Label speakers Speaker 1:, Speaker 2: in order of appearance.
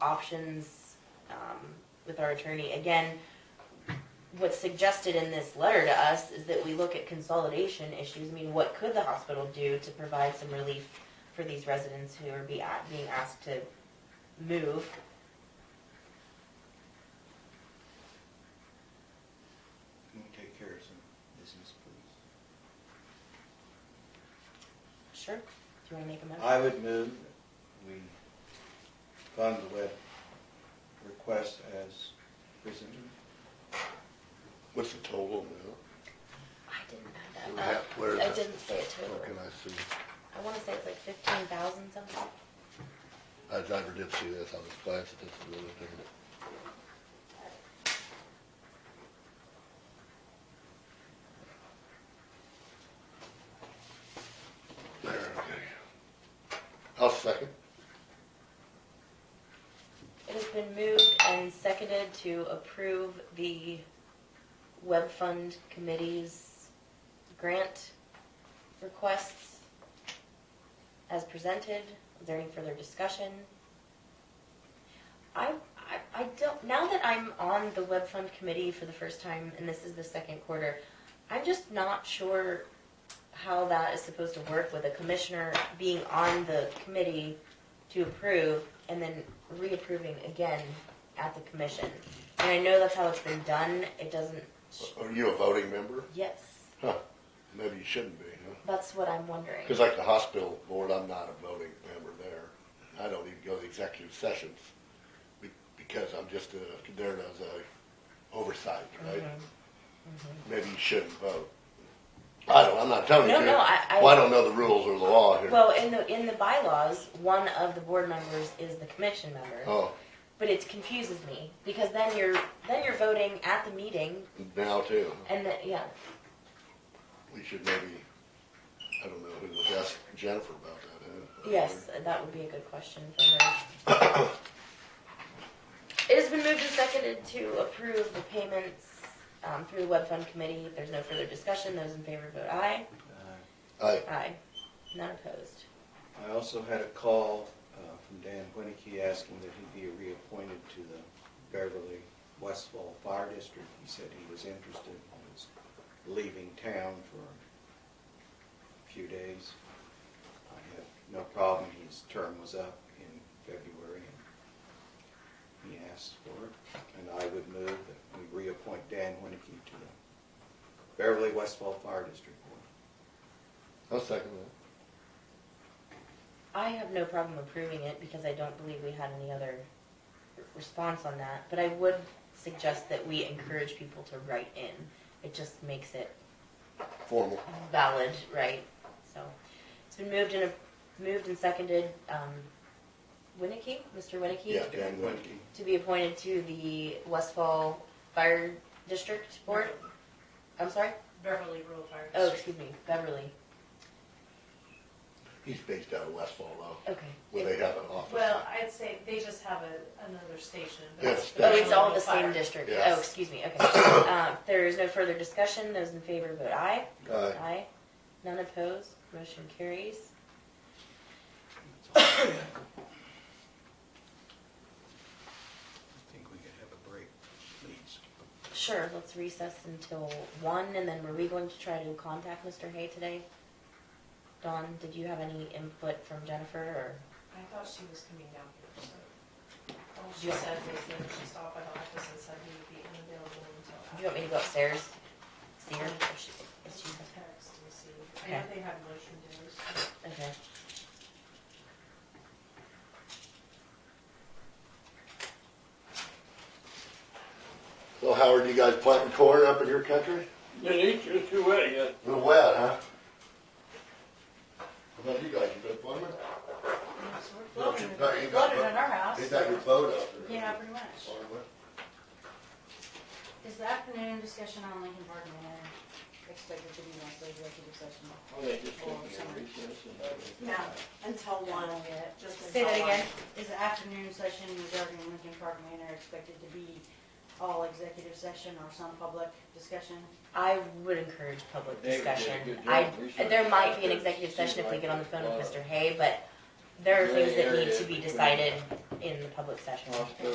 Speaker 1: options um, with our attorney. Again, what's suggested in this letter to us is that we look at consolidation issues. I mean, what could the hospital do to provide some relief for these residents who are be, being asked to move?
Speaker 2: Can we take care of some business, please?
Speaker 1: Sure. Do you want to make a motion?
Speaker 2: I would move that we fund the web request as presented.
Speaker 3: What's the total amount?
Speaker 1: I didn't
Speaker 3: Do
Speaker 1: have
Speaker 3: we
Speaker 1: that.
Speaker 3: have-
Speaker 1: up.
Speaker 3: where is
Speaker 1: Uh, I
Speaker 3: it?
Speaker 1: didn't see a total.
Speaker 3: Where can I see?
Speaker 1: I want to say it's like fifteen thousand something.
Speaker 3: I never did see this, I was glancing at this the other day. There, okay. I'll second.
Speaker 1: It has been moved and seconded to approve the web fund committee's grant requests as presented. Is there any further discussion? I, I, I don't, now that I'm on the web fund committee for the first time, and this is the second quarter, I'm just not sure how that is supposed to work with a commissioner being on the committee to approve and then reapproving again at the commission. And I know that's how it's been done, it doesn't,
Speaker 3: Are you a voting member?
Speaker 1: yes,
Speaker 3: Huh, maybe you shouldn't be, huh?
Speaker 1: that's what I'm wondering.
Speaker 3: Because like the hospital board, I'm not a voting member there. I don't even go to the executive sessions be- because I'm just a, there as a oversight, right?
Speaker 1: Mhm.
Speaker 3: Maybe you shouldn't vote. I don't, I'm not telling you
Speaker 1: Mm-hmm. No,
Speaker 3: to.
Speaker 1: no, I- I-
Speaker 3: Well, I don't know the rules or the law here.
Speaker 1: Well, in the, in the bylaws, one of the board members is the commission member,
Speaker 3: Oh,
Speaker 1: but it confuses me, because then you're, then you're voting at the meeting,
Speaker 3: now too.
Speaker 1: and then, yeah,
Speaker 3: We should maybe, I don't know, who would ask Jennifer about that, eh? huh?
Speaker 1: yes, that would be a good question for her. It has been moved and seconded to approve the payments, um, through the web fund committee, if there's no further discussion, those in favor vote aye.
Speaker 2: Uh,
Speaker 3: I,
Speaker 1: Aye. None opposed.
Speaker 2: I also had a call uh, from Dan Winicky asking that he be reappointed to the Beverly Westfall Fire District. He said he was interested, and was leaving town for a few days. I have no problem, his term was up in February, and he asked for it. And I would move that we reappoint Dan Winicky to the Beverly Westfall Fire District Board.
Speaker 3: I'll second
Speaker 1: I have no problem approving it because I don't believe we had any other r- response on that, but I would suggest that we encourage people to write in. It just makes it
Speaker 3: that. Formal.
Speaker 1: valid, right? So, it's been moved and, moved and seconded, um, Winnicky, Mr. Winnicky?
Speaker 3: Yeah, Dan Winicky.
Speaker 1: To be appointed to the Westfall Fire District Board? I'm sorry?
Speaker 4: Beverly Rural Fire
Speaker 1: Oh,
Speaker 4: District.
Speaker 1: excuse me, Beverly,
Speaker 3: He's based out of Westfall though,
Speaker 1: okay.
Speaker 3: where they have an office.
Speaker 4: Well, I'd say they just have a, another station. but
Speaker 3: Yeah,
Speaker 4: it's
Speaker 3: station.
Speaker 1: Oh, it's all the
Speaker 4: Beverly
Speaker 1: same
Speaker 4: Fire.
Speaker 1: district.
Speaker 3: Yes.
Speaker 1: Oh, excuse me, okay. Uh, There is no further discussion. Those in favor vote aye.
Speaker 3: Aye.
Speaker 1: Aye. None opposed. Motion carries.
Speaker 2: That's all I have. I think we could have a break, please.
Speaker 1: Sure, let's recess until one, and then were we going to try to contact Mr. Hay today? Dawn, did you have any input from Jennifer, or?
Speaker 4: I thought she was coming down here, so. All she said was that she stopped by the office and said he would be unavailable until
Speaker 1: Do
Speaker 4: after.
Speaker 1: you want me to go upstairs, see her, if she, if
Speaker 4: She
Speaker 1: she's,
Speaker 4: can text and see. I know
Speaker 1: Okay.
Speaker 4: they have motion days.
Speaker 1: okay.
Speaker 3: So Howard, you guys planting corn up in your country?
Speaker 5: It ain't too wet yet.
Speaker 3: A little wet, huh? How about you guys, you been plumbing?
Speaker 4: So we're
Speaker 3: Well, you
Speaker 4: floating,
Speaker 3: got- you
Speaker 4: it-
Speaker 3: got-
Speaker 4: floating in our house.
Speaker 3: They got your boat out there.
Speaker 4: Yeah, pretty much.
Speaker 6: Is the afternoon discussion on Lincoln Park Manor expected to be next executive session?
Speaker 5: Well, they just took me a recess and I was-
Speaker 6: No, until one.
Speaker 4: Just
Speaker 1: Say that
Speaker 4: until I-
Speaker 1: again.
Speaker 6: Is the afternoon session regarding Lincoln Park Manor expected to be all executive session or some public discussion?
Speaker 1: I would encourage public
Speaker 5: David did a
Speaker 1: discussion.
Speaker 5: good job
Speaker 1: I,
Speaker 5: researching
Speaker 1: there might be an
Speaker 5: that.
Speaker 1: executive session if we get on the phone with
Speaker 5: Seems
Speaker 1: Mr.
Speaker 5: like
Speaker 1: Hay, but there are
Speaker 5: Gray
Speaker 1: things that need
Speaker 5: area
Speaker 1: to be
Speaker 5: between-
Speaker 1: decided
Speaker 7: in the public session.
Speaker 1: Hospital